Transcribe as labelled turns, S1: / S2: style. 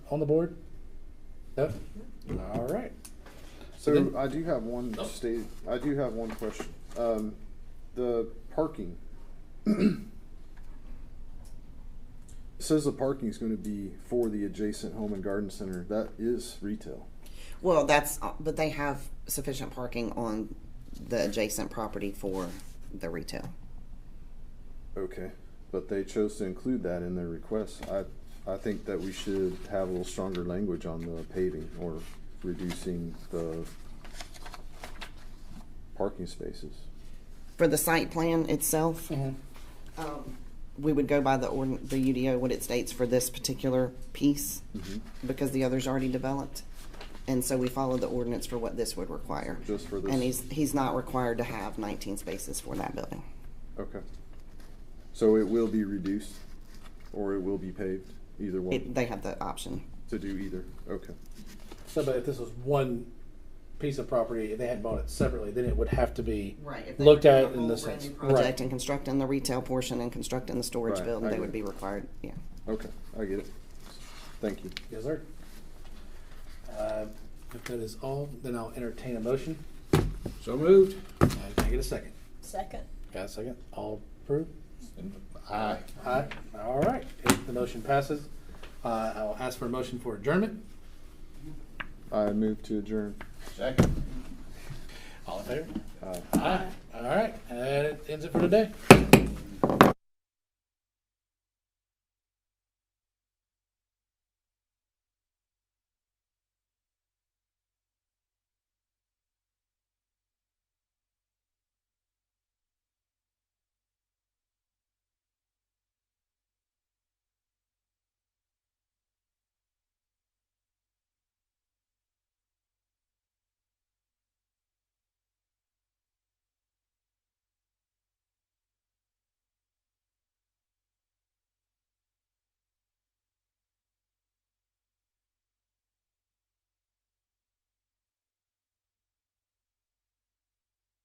S1: on the board? No? All right.
S2: So
S1: Then-
S2: I do have one
S1: Oh.
S2: state, I do have one question. Um, the parking. Says the parking is gonna be for the adjacent home and garden center. That is retail.
S3: Well, that's, uh, but they have sufficient parking on the adjacent property for the retail.
S2: Okay. But they chose to include that in their request. I, I think that we should have a little stronger language on the paving or reducing the parking spaces.
S3: For the site plan itself,
S1: Mhm.
S3: um, we would go by the ordin, the UDO, what it states for this particular piece,
S2: Mm-hmm.
S3: because the other's already developed. And so we follow the ordinance for what this would require.
S2: Just for this.
S3: And he's, he's not required to have nineteen spaces for that building.
S2: Okay. So it will be reduced or it will be paved, either
S3: It,
S2: one,
S3: they have the option.
S2: to do either, okay.
S1: So, but if this was one piece of property, if they had bought it separately, then it would have to be
S3: Right, if they
S1: looked
S3: were doing
S1: at
S3: a
S1: in the
S3: whole brand
S1: sense.
S3: new
S1: Right.
S3: Project and constructing the retail portion and constructing the storage
S2: Right,
S3: building,
S2: I
S3: they
S2: get
S3: would
S2: it.
S3: be required, yeah.
S2: Okay, I get it. Thank you.
S1: Yes, sir. Uh, If that is all, then I'll entertain a motion.
S4: So moved.
S1: Uh, Can I get a second?
S5: Second.
S1: Got a second? All approved?
S4: Aye.
S1: Aye. All right. If the motion passes, uh, I will ask for a motion for adjournment.
S2: I move to adjourn.
S4: Second.
S1: All in favor?
S2: Aye.
S1: Aye. All right. And that ends it for today.